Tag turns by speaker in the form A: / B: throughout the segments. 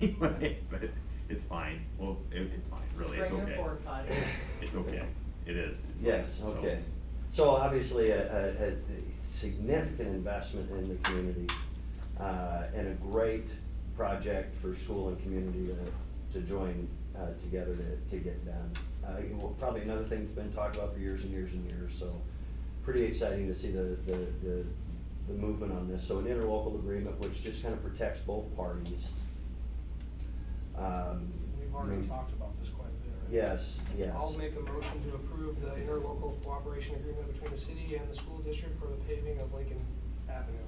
A: anyway, but it's fine, well, it, it's fine, really, it's okay.
B: Bring your board potty.
A: It's okay, it is, it's fine,
C: Yes,
A: so-
C: okay. So obviously, a, a, a significant investment in the community, uh, and a great project for school and community to, to join, uh, together to, to get done. Uh, you will- probably another thing that's been talked about for years and years and years, so pretty exciting to see the, the, the, the movement on this. So an interlocal agreement, which just kind of protects both parties. Um,
D: We've already talked about this quite a bit, right?
C: Yes, yes.
D: I'll make a motion to approve the interlocal cooperation agreement between the city and the school district for the paving of Lincoln Avenue.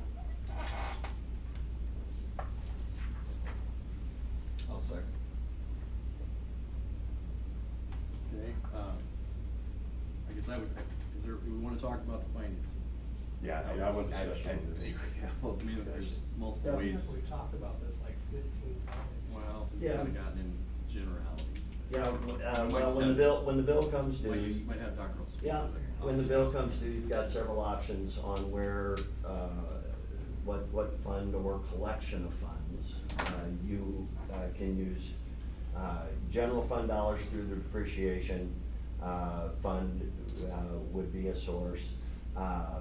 E: I'll second.
F: Okay, um, I guess I would, is there, we wanna talk about the financing.
A: Yeah, I, I would, I, I, I agree, yeah, well,
F: I mean, there's multiple
C: Yeah.
F: ways,
D: We've talked about this like fifteen times.
F: well, we've
C: Yeah.
F: kinda gotten in generalities.
C: Yeah, w- uh,
F: Might
C: well,
F: just
C: when the
F: have-
C: bill, when the bill comes
F: Might,
C: due,
F: use- might have Dr. Earl speak
C: yeah,
F: to that.
C: when the bill comes due, you've got several options on where, uh, what, what fund or collection of funds. Uh, you, uh, can use, uh, general fund dollars through the depreciation, uh, fund, uh, would be a source. Uh,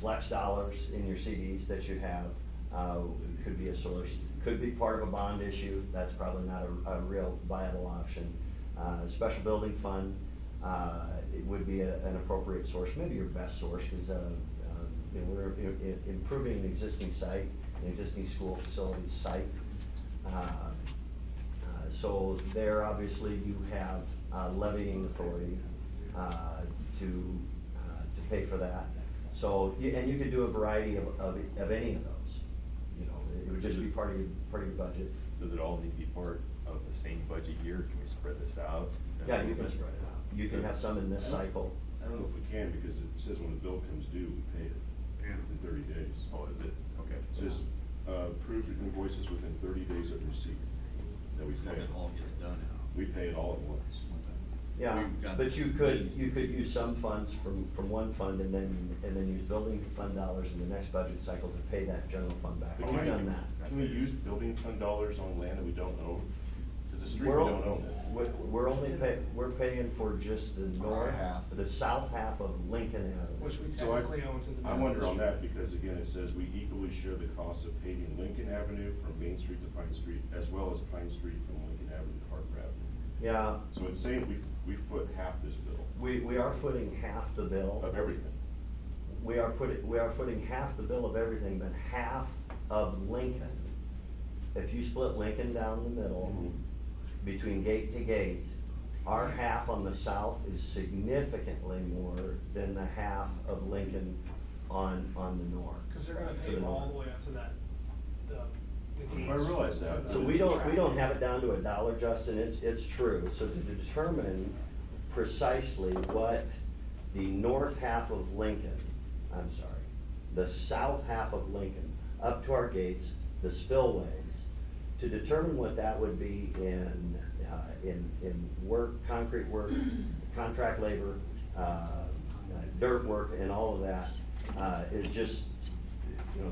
C: flex dollars in your CDs that you have, uh, could be a source, could be part of a bond issue, that's probably not a, a real viable option. Uh, special building fund, uh, it would be a- an appropriate source, maybe your best source, cause, uh, um, you know, we're i- i- improving an existing site, an existing school facility site. Uh, uh, So there, obviously, you have uh, levying authority uh, to, uh, to pay for that. So, you- and you could do a variety of, of, of any of those, you know, it would just be part of your, part of your budget.
A: does it all need to be part of the same budget year, can we spread this out?
C: Yeah, you can spread it out, you can have some in this cycle.
G: I don't know if we can, because it says when the bill comes due, we pay it within thirty days.
A: Oh, is it, okay.
G: It says, uh, approved invoices within thirty days of receipt, that we
E: When
G: pay.
E: it all gets done now.
G: We pay it all at once.
C: Yeah,
E: We've got
C: but you could,
E: these.
C: you could use some funds from, from one fund and then, and then use building fund dollars in the next budget cycle to pay that general fund back.
E: Oh,
G: But
C: We've
G: can we-
C: done Oh, that.
A: That's
G: Can we
A: good.
G: use building fund dollars on land that we don't own? Because the street we
C: We're
G: don't
C: al-
G: own.
C: We're, we're only pay, we're paying for just the north,
E: half.
C: the south half of Lincoln Avenue.
D: Which we
G: So I-
D: technically own to the.
G: I wonder on that, because again, it says we equally share the cost of paving Lincoln Avenue from Main Street to Pine Street, as well as Pine Street from Lincoln Avenue to Harper Avenue.
C: Yeah,
G: So it's saying we, we foot half this bill
C: we, we are footing half the bill.
G: of everything.
C: We are putting, we are footing half the bill of everything, but half of Lincoln. If you split Lincoln down the middle,
D: Mm-hmm.
C: between gate to gate, our half on the south is significantly more than the half of Lincoln on, on the north.
D: Cause they're gonna
C: To
D: pave
C: the
D: all
C: north.
D: the way up to that, the, the
G: I
D: gates.
G: realize that.
C: So we don't, we don't have it down to a dollar, Justin, it's, it's true. So to determine precisely what the north half of Lincoln, I'm sorry, the south half of Lincoln, up to our gates, the spillways, to determine what that would be in, uh, in, in work, concrete work, contract labor, uh, uh, dirt work and all of that, uh, is just you know,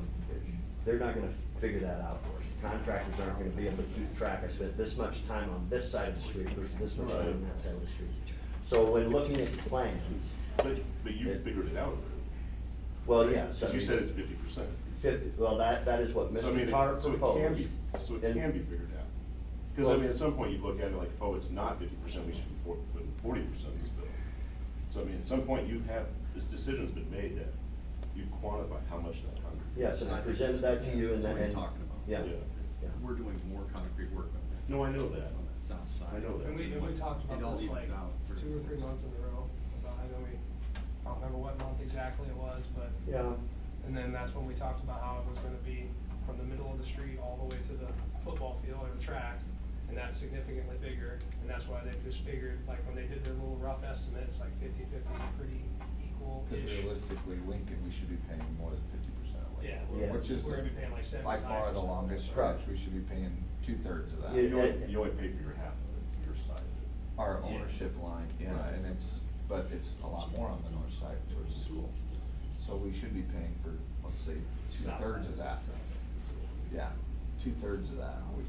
C: they're not gonna figure that out for us. The Contractors aren't gonna be able to keep track. I spent this much time on this side of the street versus this much time on that side of the street. So when looking at the plans,
G: But, but you figured it out.
C: well, yeah, so.
G: Because you said it's fifty percent.
C: Fifty, well, that, that is what
G: So I mean,
C: Mr.
G: it-
C: Tarr
G: so it can
C: proposed.
G: be- So it
C: and-
G: can be figured out. Because I
C: Well-
G: mean, at some point you look at it like, oh, it's not fifty percent, we should be putting forty percent of this bill. So I mean, at some point you have, this decision's been made that you've quantified how much that hundred.
C: Yes, and I presented that to you and
F: That's
C: then.
F: what he's talking about.
C: Yeah, yeah.
F: We're doing more concrete work on that.
G: No, I know that.
F: On that south side.
G: I know that.
D: And we, and we talked
F: It all
D: about this
F: evens
D: like
F: out for-
D: two or three months in a row, about, I know we, I don't remember what month exactly it was, but.
C: Yeah,
D: And then that's when we talked about how it was gonna be from the middle of the street all the way to the football field or the track. And that's significantly bigger, and that's why they just figured, like, when they did their little rough estimates, like fifty-fifty is pretty
E: Because
D: equal-ish.
E: realistically, Lincoln, we should be paying more than fifty percent of
D: Yeah,
E: Lincoln.
D: we're,
C: Yeah.
D: we're
E: Which is
D: gonna be
E: the-
D: paying like seventy-five
E: by far the longest
C: Right.
E: stretch, we should be paying two-thirds of
C: Yeah.
E: that.
G: You only, you only pay for your half of it, your side of it.
E: Our ownership line, yeah, and it's, but it's a lot more on the north side towards the school. So we should be paying for, let's say, two-thirds of that. Yeah, two-thirds of that, we